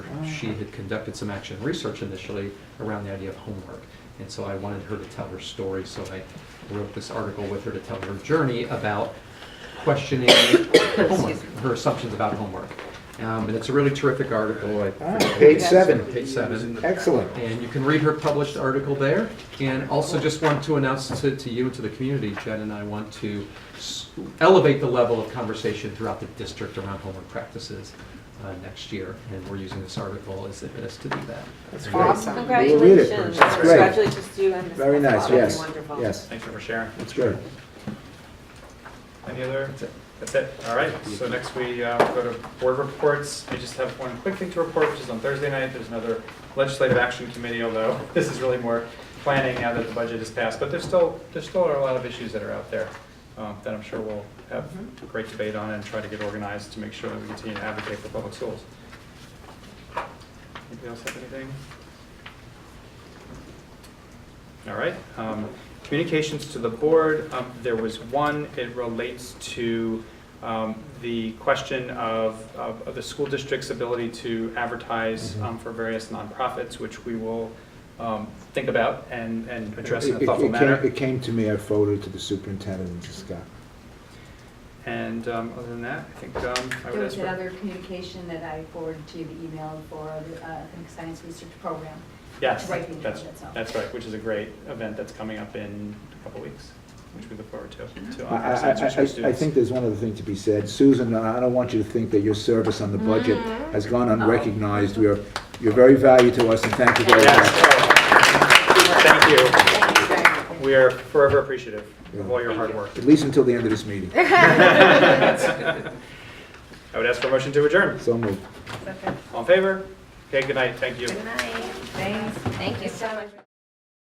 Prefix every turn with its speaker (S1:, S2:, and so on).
S1: she had conducted some action research initially around the idea of homework. And so I wanted her to tell her story, so I wrote this article with her to tell her journey about questioning homework, her assumptions about homework. Um, And it's a really terrific article. I
S2: Ah,
S1: forget-
S2: Page seven,
S1: Page seven.
S2: excellent.
S1: And you can read her published article there. And also just want to announce to, to you and to the community, Jen and I want to s- elevate the level of conversation throughout the district around homework practices uh, next year. And we're using this article as, as to do that.
S2: That's great.
S3: Awesome.
S2: We will read it
S4: Congratulations.
S2: first. That's great.
S4: Congratulations to you and Ms.
S2: Very nice,
S4: Pasquale.
S2: yes,
S4: Wonderful.
S2: yes,
S5: Thanks for sharing.
S2: that's good.
S5: Any other?
S1: That's it.
S5: That's it. All right. So next we uh, go to board reports. I just have one quick thing to report, which is on Thursday night. There's another legislative action committee, although this is really more planning now that the budget is passed. But there's still, there's still a lot of issues that are out there um, that I'm sure we'll have a great debate on and try to get organized to make sure that we continue to advocate for public schools. Anybody else have anything? All right. um, Communications to the board, um, there was one, it relates to um, the question of, of of the school district's ability to advertise
S2: Mm-hmm.
S5: um, for various nonprofits, which we will um, think about and, and address in
S2: It-
S5: a
S2: it-
S5: thoughtful
S2: it came-
S5: manner.
S2: It came to me, I forwarded it to the superintendent and to Scott.
S5: And um, other than that, I think um, I
S6: There
S5: would
S6: was
S5: ask for.
S6: another communication that I forwarded to you, the email for the, uh, I think, science research program.
S5: Yes,
S6: Right, you know,
S5: that's,
S6: that's all.
S5: that's right, which is a great event that's coming up in a couple weeks, which we look forward to, to
S2: I,
S5: honor
S2: I,
S5: science
S2: I-
S5: research
S2: I- I
S5: students.
S2: think there's one other thing to be said. Susan, I don't want you to think that your service on the budget
S4: Mm-hmm.
S2: has gone
S4: Oh.
S2: unrecognized. You're, you're very valuable to us and thank you very
S5: Yes,
S2: much.
S5: oh, thank you.
S4: Thank you very much.
S5: We are forever appreciative of all your hard work.
S2: At least until the end of this meeting.
S5: I would ask for a motion to adjourn.
S2: So moved.
S5: All in favor? Okay, good night, thank you.
S4: Good night. Thanks. Thank you so much.